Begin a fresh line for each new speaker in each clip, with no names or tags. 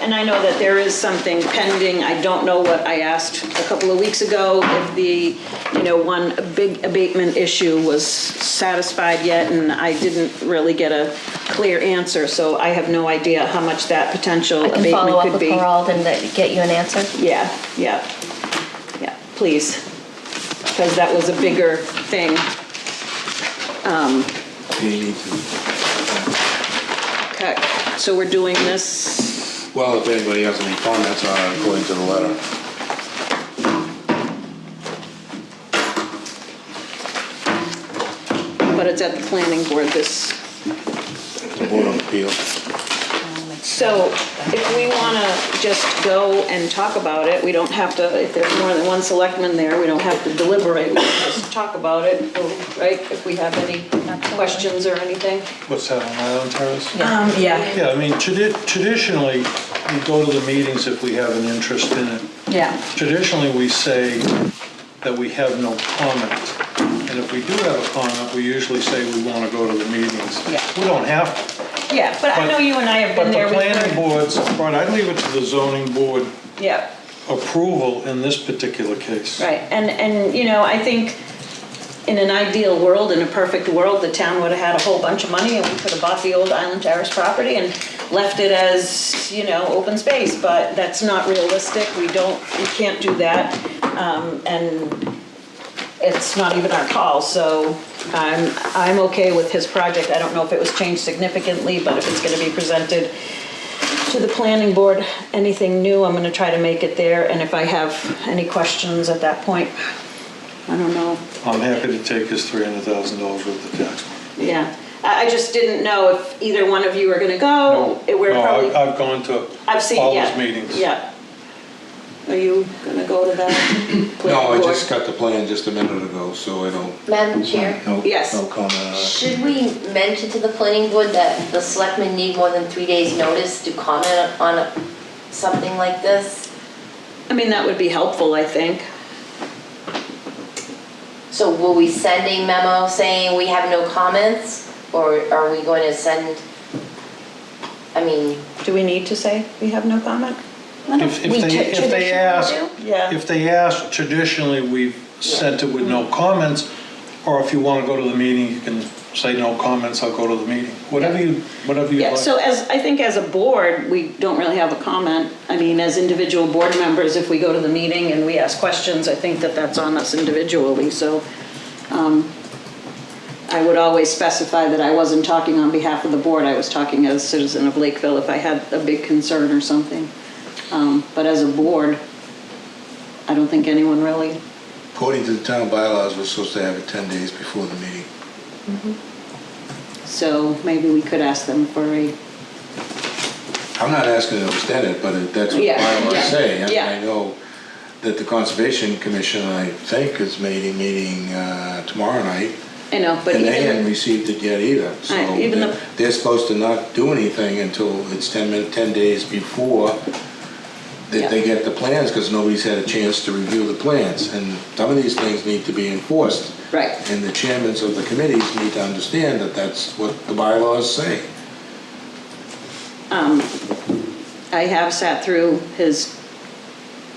And I know that there is something pending, I don't know what I asked a couple of weeks ago, if the, you know, one big abatement issue was satisfied yet, and I didn't really get a clear answer, so I have no idea how much that potential
I can
abatement
follow up
could
with
be.
Gerald and that- get you an answer.
Yeah, yeah, yeah, please, because that was a bigger thing.
They need to,
Okay, so we're doing this,
well, if anybody has any comments on it according to the letter.
but it's at the planning board this
The Board of Appeal.
So if we want to just go and talk about it, we don't have to, if there's more than one selectman there, we don't have to deliberate, we can just talk about it, right? If we have any questions or anything.
What's that, on Island Terrace?
Um,
Yeah, I mean, tradi- traditionally, we go to the meetings if we have an interest in it.
Yeah.
Traditionally, we say that we have no comment. And if we do have a comment, we usually say we want to go to the meetings.
Yeah.
We don't have to.
Yeah, but I know you and I have
But
been
the
there. we've
planning
heard-
boards, right, I leave it to the zoning board
Yeah.
approval in this particular case.
Right, and, and, you know, I think in an ideal world, in a perfect world, the town would have had a whole bunch of money and we could have bought the old Island Terrace property and left it as, you know, open space, but that's not realistic, we don't, we can't do that. Um, and it's not even our call, so I'm, I'm okay with his project. I don't know if it was changed significantly, but if it's gonna be presented to the planning board, anything new, I'm gonna try to make it there, and if I have any questions at that point, I don't know.
I'm happy to take his $300,000 worth of tax money.
Yeah, I, I just didn't know if either one of you were gonna go.
No,
Oh, It- We're
no,
probably,
I- I've gone to
I've seen,
all
yeah.
those meetings.
Yeah. Are you gonna go to that?
No, I
planning
just
board?
got the plan just a minute ago, so I don't.
Madam Chair,
No,
Yes.
No comment on it.
should we mention to the planning board that the selectmen need more than three days' notice to comment on a- something like this?
I mean, that would be helpful, I think.
So will we send a memo saying we have no comments? Or are we going to send, I mean,
Do we need to say we have no comment?
If if they, if they ask,
Yeah.
if they ask, traditionally, we've sent it with no comments, or if you want to go to the meeting, you can say no comments, I'll go to the meeting, whatever you, whatever you
Yeah, so
like.
as, I think as a board, we don't really have a comment. I mean, as individual board members, if we go to the meeting and we ask questions, I think that that's on us individually, so um, I would always specify that I wasn't talking on behalf of the board, I was talking as a citizen of Lakeville if I had a big concern or something. Um, But as a board, I don't think anyone really,
According to the town bylaws, we're supposed to have it 10 days before the meeting.
so maybe we could ask them for a,
I'm not asking to extend it, but it- that's what the
Yeah,
bylaws
yeah,
say. I mean,
yeah.
I know that the Conservation Commission, I think, is meeting, meeting uh, tomorrow night.
you know, but
And they
even,
hadn't received it yet either, so
Right, even
they're-
the-
they're supposed to not do anything until it's 10 min, 10 days before
Yeah.
that they get the plans, because nobody's had a chance to review the plans, and some of these things need to be enforced.
right.
And the chairmans of the committees need to understand that that's what the bylaws say.
I have sat through his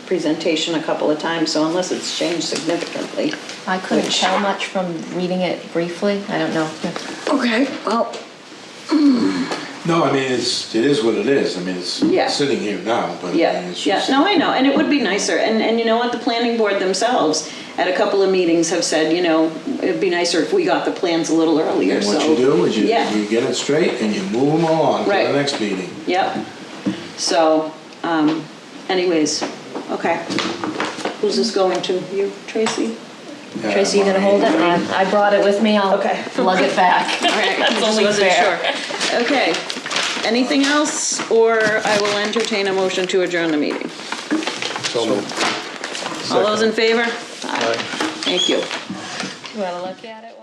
presentation a couple of times, so unless it's changed significantly.
I couldn't
Which-
tell much from reading it briefly. I don't know.
Okay, well.
No, I mean, it's, it is what it is, I mean, it's
Yeah.
sitting here now, but I mean,
Yeah,
it's
yeah,
just.
no, I know, and it would be nicer, and, and you know what, the planning board themselves at a couple of meetings have said, you know, it'd be nicer if we got the plans a little earlier,
And
so.
what you do is you,
Yeah.
you get it straight and you move them along to the
Right.
next meeting.
Yep, so, um, anyways, okay. Who's this going to, you, Tracy?
Yeah,
Tracy, you gonna hold it? Um, I brought it with me. I'll
Okay.
lug it back.
All right,
That's
I just
only
wasn't
fair.
sure. Okay, anything else, or I will entertain a motion to adjourn the meeting.
So moved.
All those in favor? Aye. Thank you.
You wanna look at it?